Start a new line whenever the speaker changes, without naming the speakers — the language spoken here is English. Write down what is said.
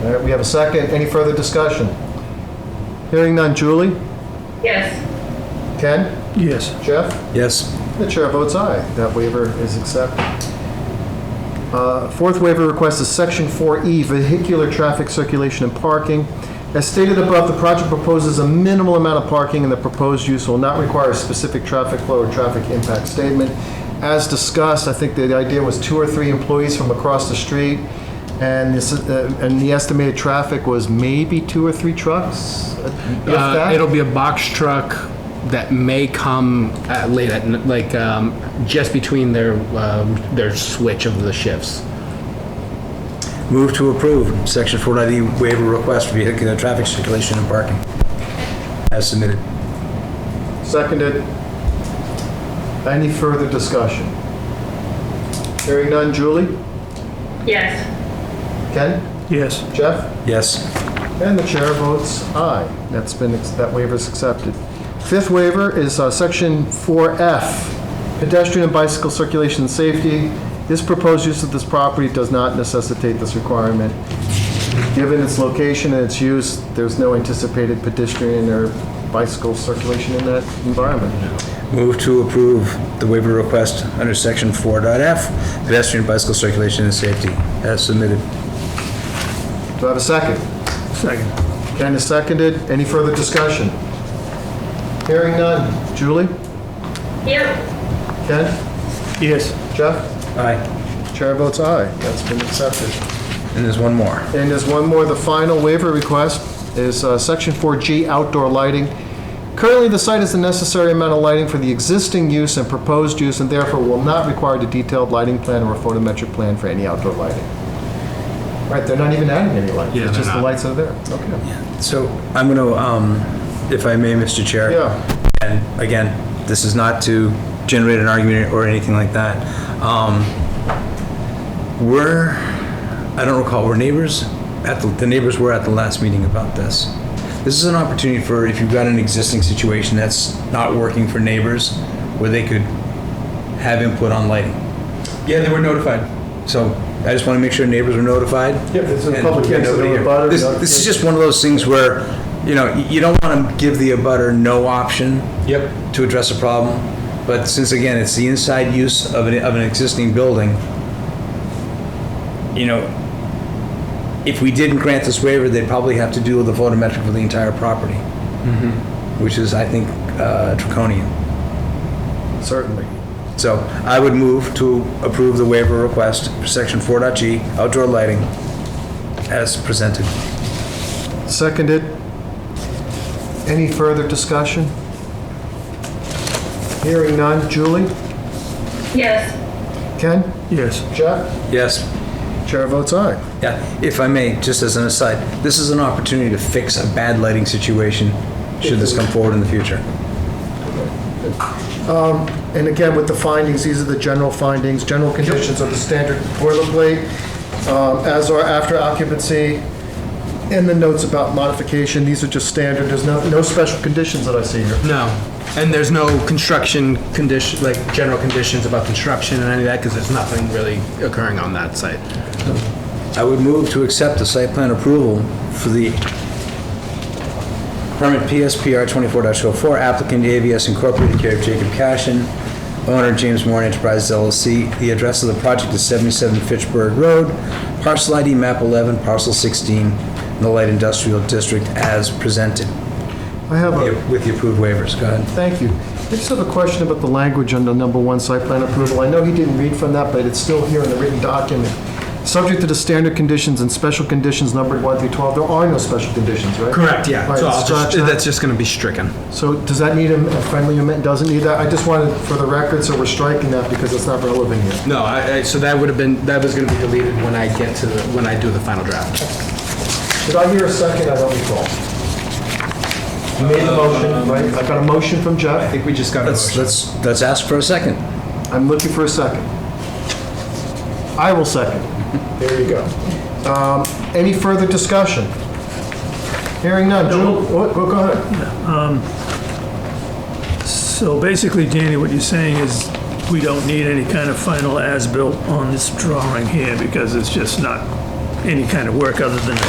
All right, we have a second. Any further discussion? Hearing none. Julie?
yes,
Ken?
Yes.
Jeff?
Yes.
The chair votes aye. That waiver is accepted. Uh, Fourth waiver request is Section 4E, vehicular traffic circulation and parking. As stated above, the project proposes a minimal amount of parking, and the proposed use will not require a specific traffic flow or traffic impact statement. As discussed, I think the idea was two or three employees from across the street, and this, uh, and the estimated traffic was maybe two or three trucks, if
Uh,
that?
it'll be a box truck that may come at late at n- like um, just between their um, their switch of the shifts.
Move to approve section 490 waiver request for vehicular traffic circulation and parking as submitted.
Seconded. Any further discussion? Hearing none. Julie?
yes,
Ken?
Yes.
Jeff?
Yes.
And the chair votes aye. That's been, that waiver's accepted. Fifth waiver is uh, Section 4F, pedestrian and bicycle circulation and safety. This proposed use of this property does not necessitate this requirement. Given its location and its use, there's no anticipated pedestrian or bicycle circulation in that environment.
Move to approve the waiver request under section 4.f pedestrian bicycle circulation and safety as submitted.
Do I have a second?
Second.
Ken is seconded. Any further discussion? Hearing none. Julie?
yep,
Ken?
Yes.
Jeff?
Aye.
Chair votes aye. That's been accepted.
And there's one more.
And there's one more. The final waiver request is uh, Section 4G outdoor lighting. Currently, the site has the necessary amount of lighting for the existing use and proposed use, and therefore will not require a detailed lighting plan or a photometric plan for any outdoor lighting. Right, they're not even adding any lights.
Yeah,
It's just
they're
the
not.
lights are there. Okay.
So I'm going to, um, if I may, Mr. Chair.
Yeah.
And again, this is not to generate an argument or anything like that. Um, We're, I don't recall, were neighbors, at the, the neighbors were at the last meeting about this. This is an opportunity for, if you've got an existing situation that's not working for neighbors, where they could have input on lighting. Yeah, they were notified. So I just want to make sure neighbors were notified.
Yep, this is a
And
public hearing, so
nobody
the
here.
abutter
This,
notified.
this is just one of those things where, you know, you don't want to give the abutter no option. Yep. To address a problem, but since again, it's the inside use of an, of an existing building, you know, if we didn't grant this waiver, they'd probably have to do the photometric for the entire property, which is, I think, uh, draconian.
Certainly.
So I would move to approve the waiver request for section 4.g outdoor lighting as presented.
Seconded. Any further discussion? Hearing none. Julie?
yes,
Ken?
Yes.
Jeff?
Yes.
Chair votes aye.
Yeah, if I may, just as an aside, this is an opportunity to fix a bad lighting situation should this come forward in the future.
And again, with the findings, these are the general findings, general conditions of the standard boilerplate, um, as are after occupancy, and the notes about modification. These are just standard. There's no, no special conditions that I see here.
No, and there's no construction condition like general conditions about construction and any of that because there's nothing really occurring on that site.
I would move to accept the site plan approval for the permit PSPR 24-04 applicant AVS Incorporated, care of Jacob Cashin, owner James Moore Enterprises LLC. The address of the project is 77 Fitchburg Road, parcel ID map 11, parcel 16, in the light industrial district as presented,
I have a
with the approved waivers. Go ahead.
Thank you. I just have a question about the language under number one site plan approval. I know he didn't read from that, but it's still here in the written document. Subject to the standard conditions and special conditions numbered 1 through 12, there are no special conditions, right?
Correct. Yeah.
All right,
so I'll
scratch
just,
that.
that's just going to be stricken.
So does that need a a friendly amendment? Doesn't need that? I just wanted, for the record, so we're striking that because it's not relevant here.
No, I, I, so that would have been that was going to be deleted when I get to the, when I do the final draft.
Did I hear a second? I don't recall. You made the motion, right? I got a motion from
I
Jeff.
think we just got. a
Let's,
motion.
let's, let's ask for a second.
I'm looking for a second. I will second. There you go. Um, Any further discussion? Hearing none. Julie, oh, go go ahead.
So basically, Danny, what you're saying is we don't need any kind of final as-built on this drawing here because it's just not any kind of work other than a